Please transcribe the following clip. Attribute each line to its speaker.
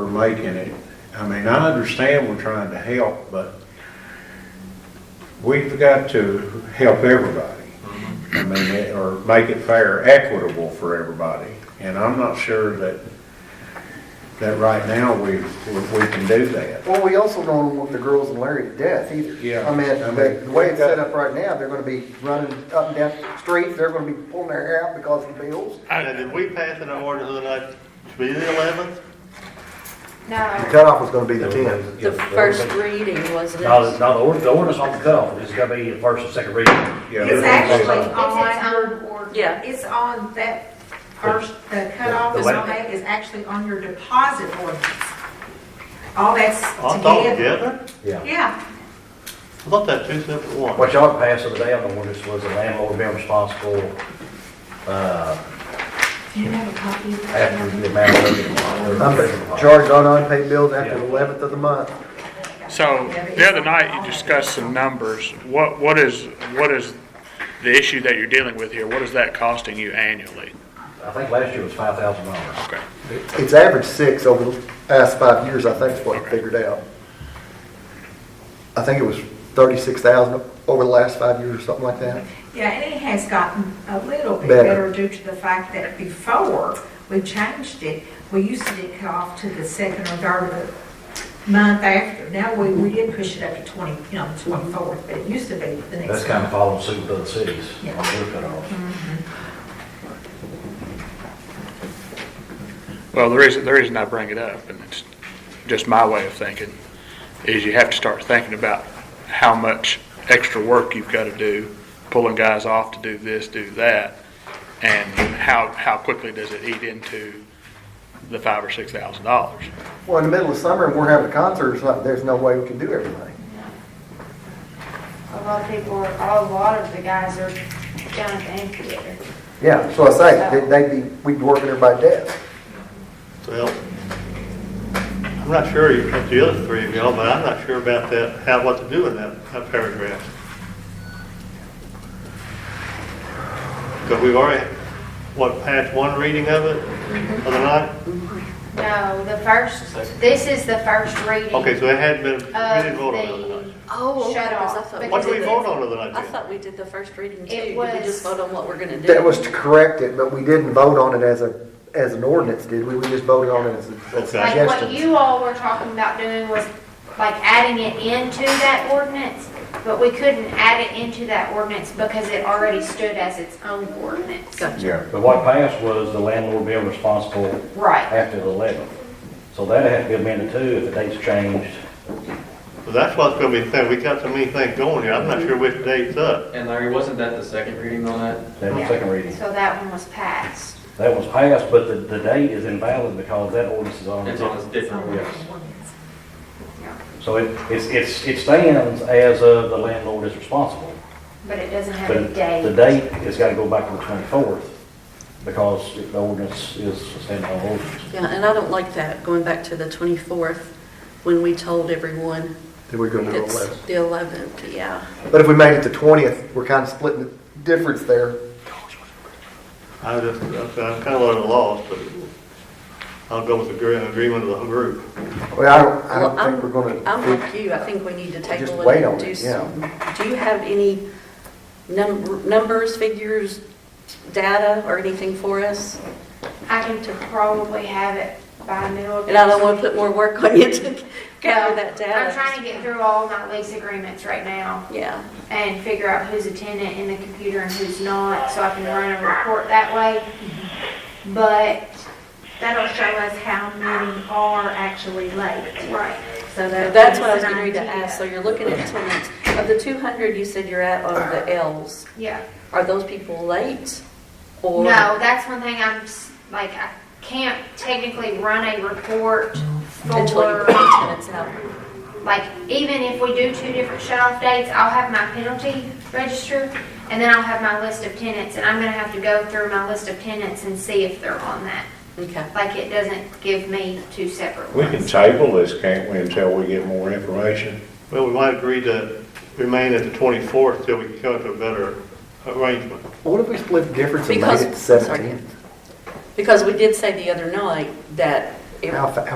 Speaker 1: making it. I mean, I understand we're trying to help, but we've got to help everybody. I mean, it- or make it fair, equitable for everybody. And I'm not sure that, that right now we, we we can do that.
Speaker 2: Well, we also don't want the girls and Larry to death either.
Speaker 1: Yeah.
Speaker 2: I mean,
Speaker 1: I mean,
Speaker 2: the the way
Speaker 1: we've
Speaker 2: it's
Speaker 1: got-
Speaker 2: set up right now, they're gonna be running up and down the street, they're gonna be pulling their hair out because of the bills.
Speaker 3: Now, did we pass an order the other night to be the eleventh?
Speaker 2: The
Speaker 4: No,
Speaker 2: cutoff is gonna be the tenth.
Speaker 4: the first reading was this.
Speaker 5: No, no, the ord- the ordinance on the cutoff, it's gotta be the first and second reading.
Speaker 1: Yeah.
Speaker 6: It's actually on, or,
Speaker 4: Yeah.
Speaker 6: it's on that first, the cutoff
Speaker 5: The
Speaker 6: is
Speaker 5: what?
Speaker 6: on that, is actually on your deposit ordinance. All that's
Speaker 3: Oh, I thought
Speaker 6: together.
Speaker 3: together,
Speaker 5: Yeah.
Speaker 6: Yeah,
Speaker 3: I thought that two separate ones.
Speaker 5: What y'all passed the other day on the ordinance was the landlord being responsible, uh,
Speaker 6: do you have a copy? of that?
Speaker 5: after the amount of.
Speaker 2: I'm gonna charge on unpaid bills after the eleventh of the month.
Speaker 7: So the other night, you discussed some numbers. What, what is, what is the issue that you're dealing with here? What is that costing you annually?
Speaker 5: I think last year was five thousand dollars.
Speaker 7: Okay.
Speaker 2: It's averaged six over the past five years, I think is what I figured out. I think it was thirty-six thousand over the last five years or something like that.
Speaker 6: Yeah, and it has gotten a little bit
Speaker 2: Better.
Speaker 6: better due to the fact that before we changed it, we used to get cut off to the second or third of the month after. Now we, we did push it up to twenty, you know, twenty-fourth, but it used to be the next.
Speaker 5: That's kind of following suit with other cities on their
Speaker 4: Mm-hmm.
Speaker 5: cutoffs.
Speaker 7: Well, the reason, the reason I bring it up, and it's just my way of thinking, is you have to start thinking about how much extra work you've got to do, pulling guys off to do this, do that, and how, how quickly does it eat into the five or six thousand dollars?
Speaker 2: Well, in the middle of summer, and we're having a concert, it's like, there's no way we can do everything.
Speaker 4: A lot of people, are- a lot of the guys are down at the amphitheater.
Speaker 2: Yeah, so I say, they- they'd be, we'd be working everybody to death.
Speaker 3: Well, I'm not sure you got the other three of y'all, but I'm not sure about that, how, what to do in that, that paragraph. Because we've already, what, passed one reading of it other night?
Speaker 4: No, the first, this is the first reading of
Speaker 3: Okay, so it hadn't been,
Speaker 4: Uh,
Speaker 3: we didn't vote on it other
Speaker 4: the
Speaker 3: night.
Speaker 8: Oh, okay,
Speaker 4: shut
Speaker 8: because I
Speaker 4: off.
Speaker 8: thought we
Speaker 3: What did we
Speaker 4: because
Speaker 3: vote on other night
Speaker 8: I
Speaker 3: then?
Speaker 8: thought we did the first reading too.
Speaker 4: It
Speaker 8: Did
Speaker 4: was-
Speaker 8: we just vote on what we're gonna do?
Speaker 2: That was to correct it, but we didn't vote on it as a, as an ordinance, did we? We just voted on it as a as a
Speaker 3: Okay.
Speaker 4: Like what
Speaker 2: suggestion.
Speaker 4: you all were talking about doing was like adding it into that ordinance, but we couldn't add it into that ordinance because it already stood as its own ordinance.
Speaker 8: Gotcha.
Speaker 1: Yeah.
Speaker 5: But what passed was the landlord being responsible
Speaker 4: Right.
Speaker 5: after the eleventh. So that had to be amended too if the date's changed.
Speaker 3: Well, that's what's gonna be the thing, we got so many things going here, I'm not sure which date's up.
Speaker 9: And Larry, wasn't that the second reading on that?
Speaker 5: That was second reading.
Speaker 4: So that one was passed.
Speaker 5: That was passed, but the, the date is invalid because that ordinance is on.
Speaker 9: It's on a different one.
Speaker 5: Yes. So it, it's, it's, it stands as of the landlord is responsible.
Speaker 4: But it doesn't have a
Speaker 5: But
Speaker 4: date.
Speaker 5: the date has got to go back to the twenty-fourth because the ordinance is a standalone ordinance.
Speaker 8: Yeah, and I don't like that, going back to the 24th, when we told everyone
Speaker 2: Then we're gonna roll
Speaker 8: it's
Speaker 2: that.
Speaker 8: the 11th, yeah.
Speaker 2: But if we made it to twentieth, we're kind of splitting the difference there.
Speaker 3: I just, I'm kinda a little lost, but I'll go with the agree- agreement of the group.
Speaker 2: Well, I don't, I don't
Speaker 8: Well, I'm-
Speaker 2: think we're gonna.
Speaker 8: I'm with you, I think we need to take
Speaker 2: Just
Speaker 8: a
Speaker 2: wait
Speaker 8: little,
Speaker 2: on
Speaker 8: do
Speaker 2: it, yeah.
Speaker 8: some, do you have any num- numbers, figures, data, or anything for us?
Speaker 4: I can to probably have it by middle of.
Speaker 8: And I don't
Speaker 4: next
Speaker 8: want to
Speaker 4: week.
Speaker 8: put more work on you to gather that data.
Speaker 4: I'm trying to get through all my lease agreements right now
Speaker 8: Yeah,
Speaker 4: and figure out who's a tenant in the computer and who's not, so I can run a report that way. But,
Speaker 6: That'll show us how many are actually late.
Speaker 4: right,
Speaker 6: So that
Speaker 8: that's what I was
Speaker 6: gives us an
Speaker 8: getting ready to
Speaker 6: idea.
Speaker 8: ask, so you're looking at tenants, of the 200 you said you're at on the Ls,
Speaker 4: yeah.
Speaker 8: are those people late?
Speaker 4: No,
Speaker 8: Or
Speaker 4: that's one thing I'm, s- like, I can't technically run a report
Speaker 8: Until
Speaker 4: for,
Speaker 8: you put the tenants out?
Speaker 4: like, even if we do two different shut-off dates, I'll have my penalty register and then I'll have my list of tenants and I'm gonna have to go through my list of tenants and see if they're on that.
Speaker 8: Okay.
Speaker 4: Like, it doesn't give me two separate
Speaker 1: We can
Speaker 4: ones.
Speaker 1: table this, can't we, until we get more information?
Speaker 3: Well, we might agree to remain at the 24th till we can come to a better arrangement.
Speaker 2: What if we split the difference and made it
Speaker 8: Because, sorry,
Speaker 2: seventeen?
Speaker 8: because we did say the other night that. it-
Speaker 2: How, fa-